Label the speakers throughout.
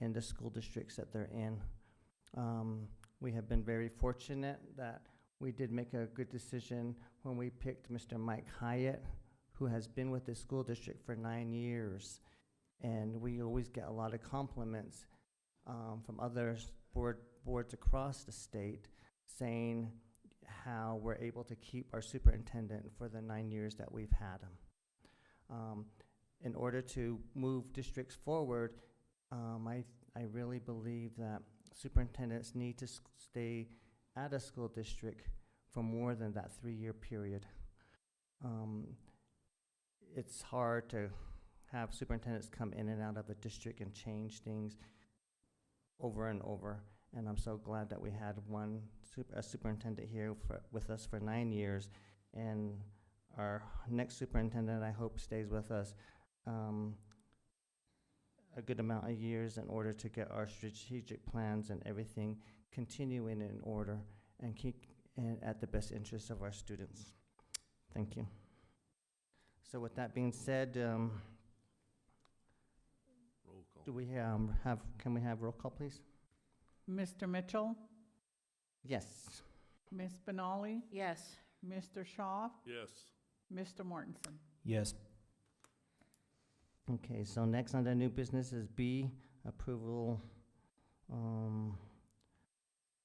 Speaker 1: in the school districts that they're in. Um, we have been very fortunate that we did make a good decision when we picked Mr. Mike Hyatt, who has been with the school district for nine years. And we always get a lot of compliments um, from other s- board, boards across the state saying how we're able to keep our superintendent for the nine years that we've had him. Um, in order to move districts forward, um, I, I really believe that superintendents need to s- stay at a school district for more than that three-year period. Um, it's hard to have superintendents come in and out of a district and change things over and over. And I'm so glad that we had one super, a superintendent here for, with us for nine years. And our next superintendent, I hope, stays with us, um, a good amount of years in order to get our strategic plans and everything continuing in order and keep, and at the best interest of our students. Thank you. So with that being said, um,
Speaker 2: Roll call.
Speaker 1: do we, um, have, can we have roll call, please?
Speaker 3: Mr. Mitchell,
Speaker 1: Yes.
Speaker 3: Ms. Benali,
Speaker 4: Yes.
Speaker 3: Mr. Shaw,
Speaker 2: Yes.
Speaker 3: Mr. Mortensen.
Speaker 5: Yes.
Speaker 1: Okay, so next on the new business is B, approval um,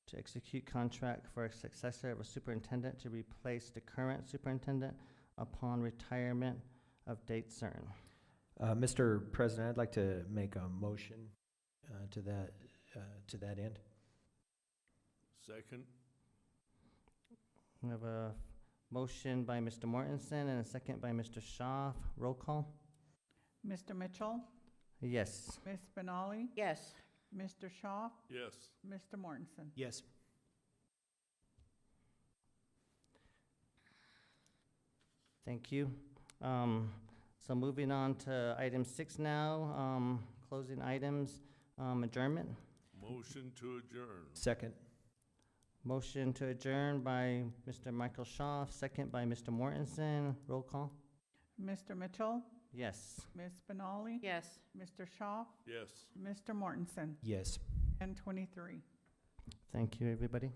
Speaker 1: to execute contract for a successor of a superintendent to replace the current superintendent upon retirement of date certain.
Speaker 5: Uh, Mr. President, I'd like to make a motion uh, to that, uh, to that end.
Speaker 2: Second?
Speaker 1: We have a motion by Mr. Mortensen and a second by Mr. Shaw. Roll call?
Speaker 3: Mr. Mitchell,
Speaker 1: Yes.
Speaker 3: Ms. Benali,
Speaker 4: Yes.
Speaker 3: Mr. Shaw,
Speaker 2: Yes.
Speaker 3: Mr. Mortensen.
Speaker 5: Yes.
Speaker 1: Thank you. Um, So moving on to item six now, um, closing items, um, adjournment.
Speaker 2: Motion to adjourn.
Speaker 5: Second.
Speaker 1: Motion to adjourn by Mr. Michael Shaw, second by Mr. Mortensen. Roll call?
Speaker 3: Mr. Mitchell,
Speaker 1: Yes.
Speaker 3: Ms. Benali,
Speaker 4: Yes.
Speaker 3: Mr. Shaw,
Speaker 2: Yes.
Speaker 3: Mr. Mortensen,
Speaker 5: Yes.
Speaker 3: and 23.
Speaker 1: Thank you, everybody.